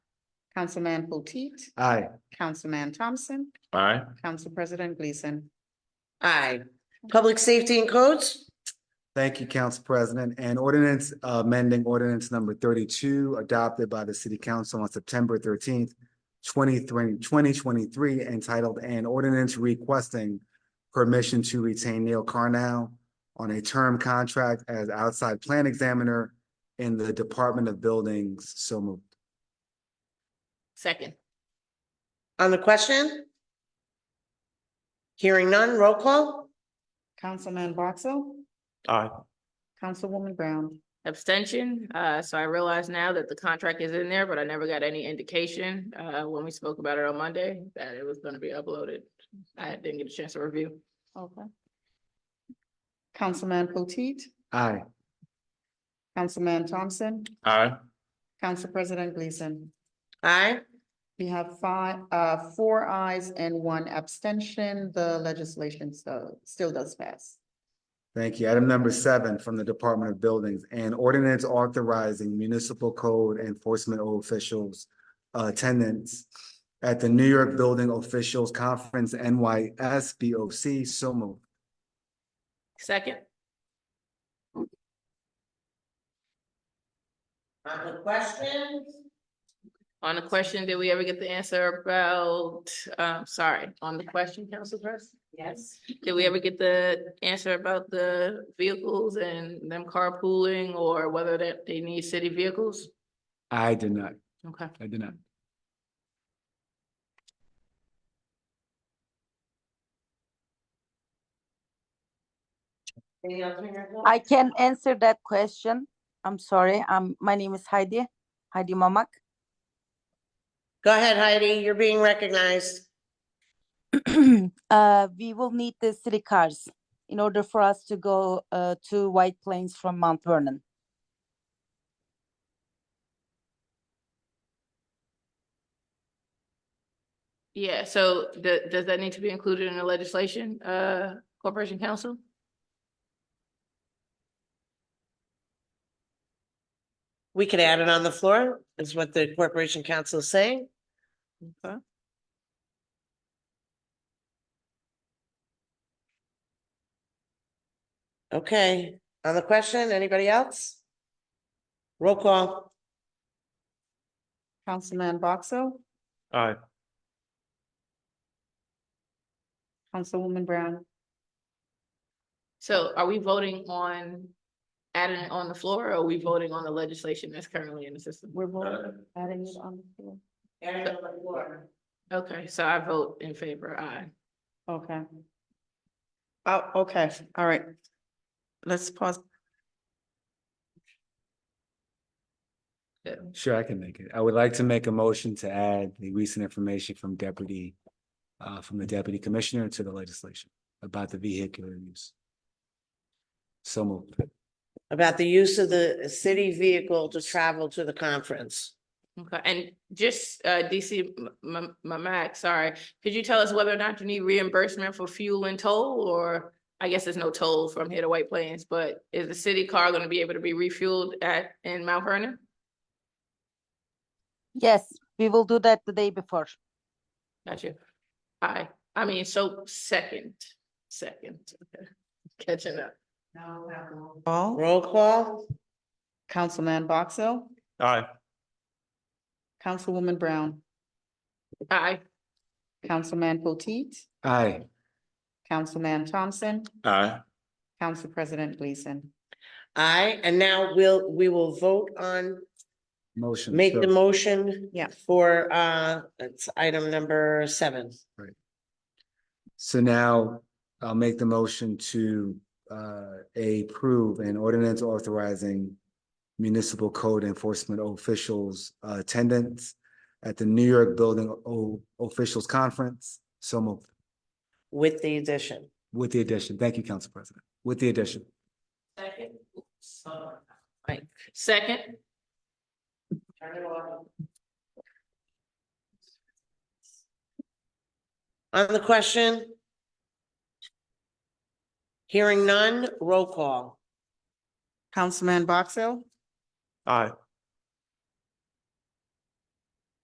Councilman Potteet, Aye. Councilman Thompson, Aye. Council President Gleason. Aye. Public safety and codes? Thank you, Council President. And ordinance uh, amending ordinance number thirty-two adopted by the City Council on September thirteenth, 2023, entitled an ordinance requesting permission to retain Neil Carnell on a term contract as outside plan examiner in the Department of Buildings. So moved. Second. On the question? Hearing none, roll call? Councilman Boxell, Aye. Councilwoman Brown, Abstention, uh, so I realize now that the contract is in there, but I never got any indication, uh, when we spoke about it on Monday, that it was gonna be uploaded. I didn't get a chance to review. Okay. Councilman Potteet, Aye. Councilman Thompson, Aye. Council President Gleason. Aye. We have five, uh, four ayes and one abstention. The legislation so still does pass. Thank you. Item number seven from the Department of Buildings and ordinance authorizing municipal code enforcement officials attendance at the New York Building Officials Conference NYSBOC. So moved. Second, On the question? on the question, did we ever get the answer about, uh, sorry, on the question, Council Press? Yes. Did we ever get the answer about the vehicles and them carpooling or whether that they need city vehicles? I did not. Okay. I did not. Any other miracle? I can answer that question. I'm sorry. Um, my name is Heidi, Heidi Mamak. Go ahead, Heidi, you're being recognized. uh, we will need the city cars in order for us to go uh, to White Plains from Mount Vernon. Yeah, so th- does that need to be included in the legislation, uh, Corporation Council? We could add it on the floor, is what the Corporation Council is saying. Okay. Okay, on the question, anybody else? Roll call. Councilman Boxell, Aye. Councilwoman Brown, So are we voting on adding it on the floor or are we voting on the legislation that's currently in the system? we're voting, adding it on the floor. Okay, so I vote in favor, aye. Okay. Oh, okay, all right. Let's pause. Sure, I can make it. I would like to make a motion to add the recent information from deputy, uh, from the deputy commissioner to the legislation about the vehicular use. So moved. About the use of the city vehicle to travel to the conference. Okay, and just, uh, DC, M- M- Mamak, sorry, could you tell us whether or not you need reimbursement for fuel and toll or? I guess there's no toll from here to White Plains, but is the city car gonna be able to be refueled at, in Mount Vernon? Yes, we will do that the day before. Got you. I, I mean, so second, second, catching up. All, Roll call. Councilman Boxell, Aye. Councilwoman Brown, Aye, Councilman Potteet, Aye. Councilman Thompson, Aye. Council President Gleason. Aye, and now we'll, we will vote on, Motion. make the Sure. motion. Yeah. For, uh, it's item number seven. So now I'll make the motion to uh approve an ordinance authorizing municipal code enforcement officials uh, attendance at the New York Building O- Officials Conference. So moved With the addition. with the addition. Thank you, Council President. With the addition. Second. Right, second, On the question? Hearing none, roll call. Councilman Boxell, Aye.